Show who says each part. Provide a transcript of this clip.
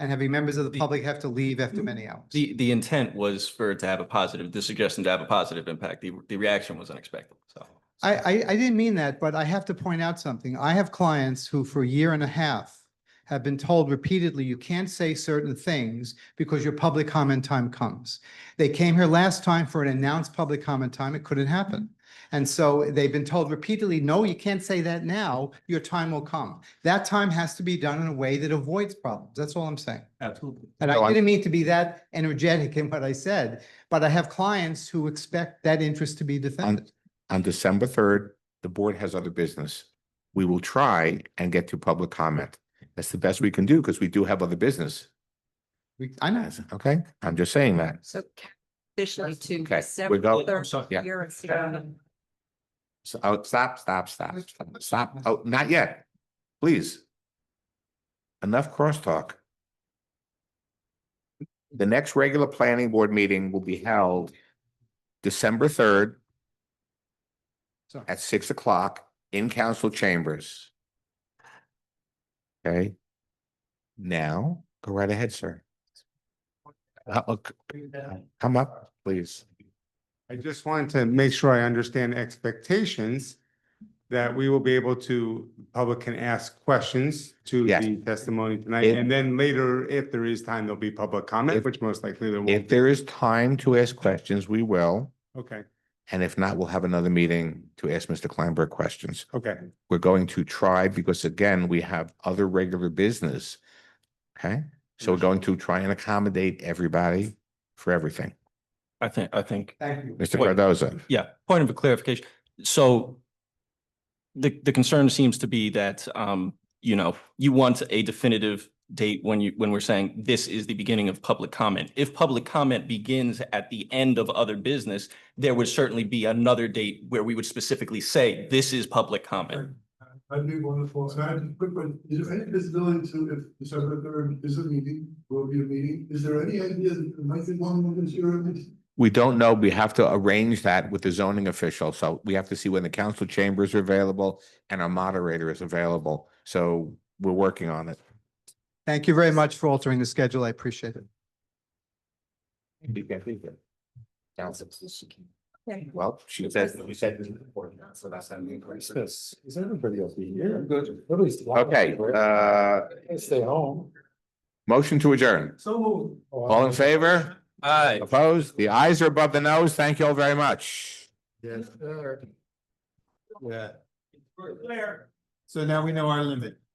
Speaker 1: and having members of the
Speaker 2: The- Mm.
Speaker 1: public have to leave after many hours.
Speaker 2: The, the intent was for it to have a positive, the suggestion to have a positive impact. The, the reaction was unexpected, so.
Speaker 1: I, I, I didn't mean that, but I have to point out something. I have clients who for a year and a half have been told repeatedly, you can't say certain things because your public comment time comes. They came here last time for an announced public comment time. It couldn't happen.
Speaker 2: Mm-hmm.
Speaker 1: And so they've been told repeatedly, no, you can't say that now. Your time will come. That time has to be done in a way that avoids problems. That's all I'm saying.
Speaker 2: Absolutely.
Speaker 1: And
Speaker 3: No,
Speaker 1: I
Speaker 3: I'm-
Speaker 1: didn't mean to be that energetic in what I said, but I have clients who expect that interest to be defended.
Speaker 3: On December third, the board has other business. We will try and get to public comment. That's the best we can do because we do have other business.
Speaker 1: We- I know.
Speaker 3: Okay, I'm just saying that.
Speaker 4: So officially to
Speaker 3: Okay,
Speaker 4: December
Speaker 3: we go-
Speaker 4: third
Speaker 3: yeah.
Speaker 4: year of CRM.
Speaker 3: So, oh, stop, stop, stop, stop, stop. Oh, not yet. Please. Enough crosstalk. The next regular planning board meeting will be held December third
Speaker 1: Sorry.
Speaker 3: at six o'clock in council chambers. Okay? Now, go right ahead, sir. Uh, look, Come up, please.
Speaker 5: I just wanted to make sure I understand expectations that we will be able to, public can ask questions to
Speaker 3: Yes.
Speaker 5: the testimony tonight.
Speaker 3: If-
Speaker 5: And then later, if there is time, there'll be public comment,
Speaker 3: If-
Speaker 5: which most likely there
Speaker 3: If
Speaker 5: won't. be.
Speaker 3: there is time to ask questions, we will.
Speaker 5: Okay,
Speaker 3: And if not, we'll have another meeting to ask Mr. Kleinberg questions.
Speaker 5: okay.
Speaker 3: We're going to try because again, we have other regular business. Okay, so we're going to try and accommodate everybody for everything.
Speaker 2: I think, I think,
Speaker 1: Thank you.
Speaker 3: Mr.
Speaker 2: Wait.
Speaker 3: Cardoza,
Speaker 2: yeah, point of a clarification. So the, the concern seems to be that, um, you know, you want a definitive date when you, when we're saying this is the beginning of public comment. If public comment begins at the end of other business, there would certainly be another date where we would specifically say, this is public comment.
Speaker 6: That'd be wonderful. So I have a quick one. Is there any visibility to if December third is a meeting, will be a meeting? Is there any idea that there might be one of this year?
Speaker 3: we don't know. We have to arrange that with the zoning official. So we have to see when the council chambers are available and our moderator is available. So we're working on it.
Speaker 1: Thank you very much for altering the schedule. I appreciate it.
Speaker 3: Well, she said, we said. So that's how we increase
Speaker 6: Yes, is everybody else be here? Good. Nobody's.
Speaker 3: Okay, uh,
Speaker 6: Stay home.
Speaker 3: motion to adjourn.
Speaker 6: So.
Speaker 3: All in favor?
Speaker 2: Aye.
Speaker 3: Opposed? The eyes are above the nose. Thank you all very much.
Speaker 6: Yes, sir. Yeah.
Speaker 5: So now we know our limit.